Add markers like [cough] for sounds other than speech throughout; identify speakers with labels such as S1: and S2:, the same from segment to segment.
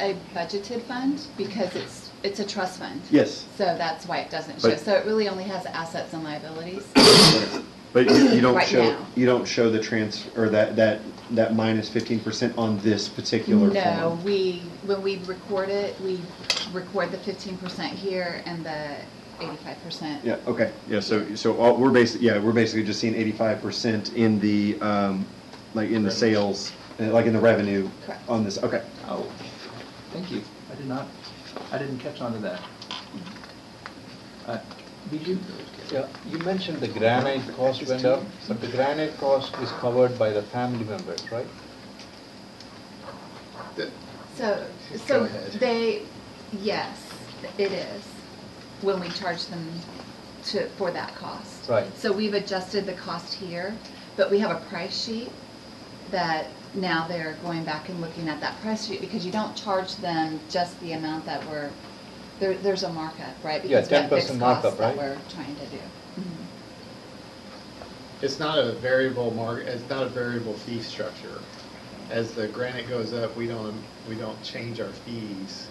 S1: a budgeted fund because it's, it's a trust fund.
S2: Yes,
S1: So that's why it doesn't show.
S2: But-
S1: So it really only has assets and liabilities.
S2: but you you don't
S1: Right
S2: show,
S1: now.
S2: you don't show the trans, or that, that, that minus fifteen percent on this particular
S1: No,
S2: form.
S1: we, when we record it, we record the fifteen percent here and the eighty-five percent.
S2: Yeah, okay, yeah, so, so all, we're basically, yeah, we're basically just seeing eighty-five percent in the, um, like in the sales, uh, like in the revenue
S1: Correct.
S2: on this, okay.
S3: Oh, thank you. I did not, I didn't catch on to that. Uh, Did you?
S4: Yeah, you mentioned the granite cost went up, but the granite cost is covered by the family members, right?
S1: So,
S5: Go
S1: so
S5: ahead.
S1: they, yes, it is, when we charge them to, for that cost.
S4: Right.
S1: So we've adjusted the cost here, but we have a price sheet that now they're going back and looking at that price sheet because you don't charge them just the amount that we're, there, there's a markup, right?
S4: Yeah,
S1: Because we have
S4: 10%
S1: fixed costs
S4: markup, right?
S1: That we're trying to do. Mhm.
S5: It's not a variable mark, it's not a variable fee structure. As the granite goes up, we don't, we don't change our fees.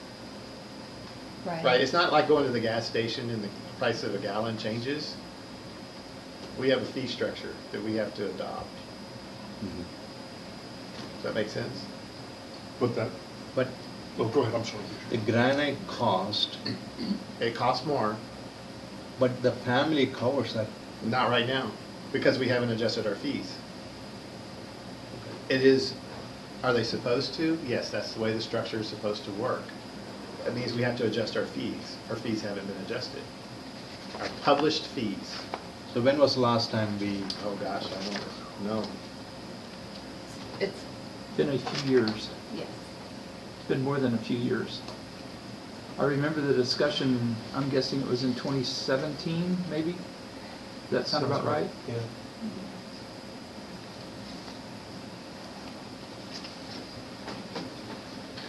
S5: Right, it's not like going to the gas station and the price of a gallon changes. We have a fee structure that we have to adopt. Does that make sense?
S6: But that,
S5: But
S6: oh, go ahead, I'm sorry.
S4: The granite cost,
S5: it costs more,
S4: but the family covers that.
S5: not right now, because we haven't adjusted our fees. It is, are they supposed to? Yes, that's the way the structure is supposed to work. That means we have to adjust our fees. Our fees haven't been adjusted. Our published fees,
S4: So when was the last time we,
S5: oh gosh, I don't know.
S1: It's,
S3: Been a few years,
S1: yes,
S3: been more than a few years. I remember the discussion, I'm guessing it was in 2017, maybe? Does that sound about right?
S4: Yeah.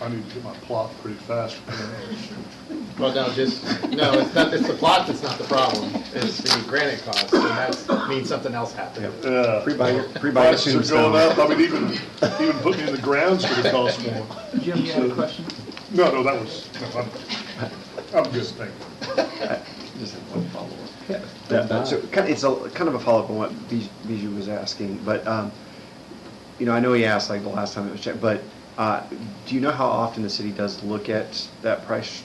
S6: I need to get my plot
S2: [laughs]
S6: pretty fast.
S5: Well, no, just, no, it's not, it's the plot that's not the problem. It's the granite cost, and that means something else happened.
S6: Yeah.
S2: Pre-buy your, pre-buy your
S6: Prices are
S2: tombstone.
S6: going up, I mean, even, even putting in the ground's gonna cost more.
S3: Jim, you had a question?
S6: No, no, that was, no, I'm, I'm just thinking.
S2: Just have one follow-up. That- that- So, kind- it's a, kind of a follow-up on what Bij- Bijou was asking, but, um, you know, I know he asked like the last time it was checked, but, uh, do you know how often the city does look at that price?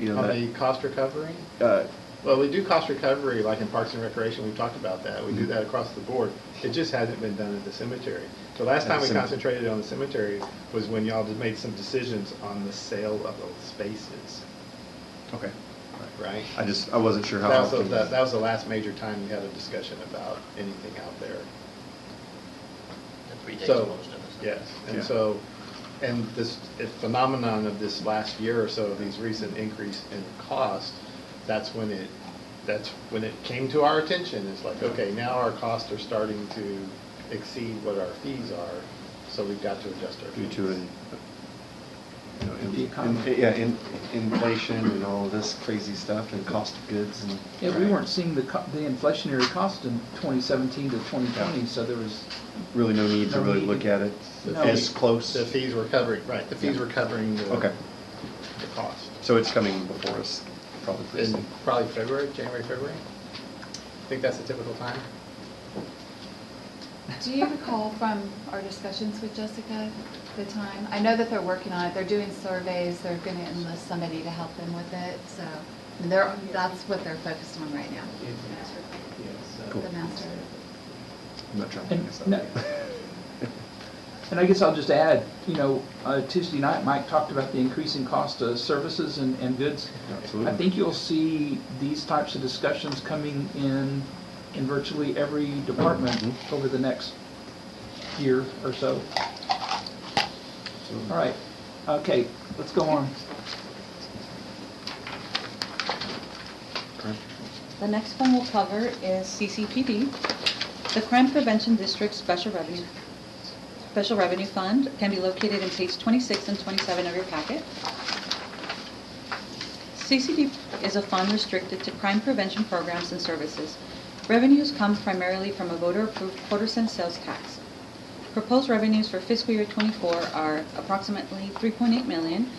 S2: You know,
S5: On the
S2: that,
S5: cost recovery?
S2: uh,
S5: Well, we do cost recovery, like in Parks and Recreation, we've talked about that. We do
S2: Mm-hmm.
S5: that across the board. It just hasn't been done at the cemetery. The last
S2: At
S5: time
S2: the
S5: we
S2: cemetery.
S5: concentrated on the cemetery was when y'all just made some decisions on the sale of those spaces,
S2: okay,
S5: right?
S2: I just, I wasn't sure how
S5: That was, the-
S2: often.
S5: that that was the last major time you had a discussion about anything out there.
S7: That predates
S5: So-
S7: most of us.
S5: Yes, and
S2: Yeah.
S5: so, and this if phenomenon of this last year or so, these recent increase in cost, that's when it, that's when it came to our attention. It's like, okay, now our costs are starting to exceed what our fees are, so we've got to adjust our
S2: Due
S5: fees.
S2: to, an- you know, in-
S3: The economy.
S2: in- yeah, in, inflation and all of this crazy stuff and cost of goods and.
S3: Yeah, we weren't seeing the co- the inflationary cost in 2017 to 2020, so there was,
S2: Really no need to
S3: No
S2: really
S3: need.
S2: look at it
S3: No.
S2: as close.
S5: The fees were covering, right, the fees were covering the.
S2: Okay.
S5: The cost.
S2: So it's coming before us, probably pretty
S5: In
S2: soon.
S5: probably February, January, February? I Think that's the typical time?
S1: Do you recall from our discussions with Jessica, the time? I know that they're working on it, they're doing surveys, they're gonna enlist somebody to help them with it, so I mean, they're, that's what they're focused on right now.
S2: Cool.
S1: The master.
S2: I'm not trying to
S3: And
S2: mess [laughs]
S3: no-
S2: up.
S3: and I guess I'll just add, you know, uh, Tuesday night, Mike talked about the increasing cost of services and and goods.
S2: Absolutely.
S3: I think you'll see these types of discussions coming in, in virtually every department
S2: Mhm.
S3: over the next year or so. All right, okay, let's go on.
S8: The next one we'll cover is CCPD. The Crime Prevention District Special Revenue, Special Revenue Fund can be located in page 26 and 27 of your packet. CCD is a fund restricted to crime prevention programs and services. Revenues come primarily from a voter-approved quarter cent sales tax. Proposed revenues for fiscal year '24 are approximately 3.8 million,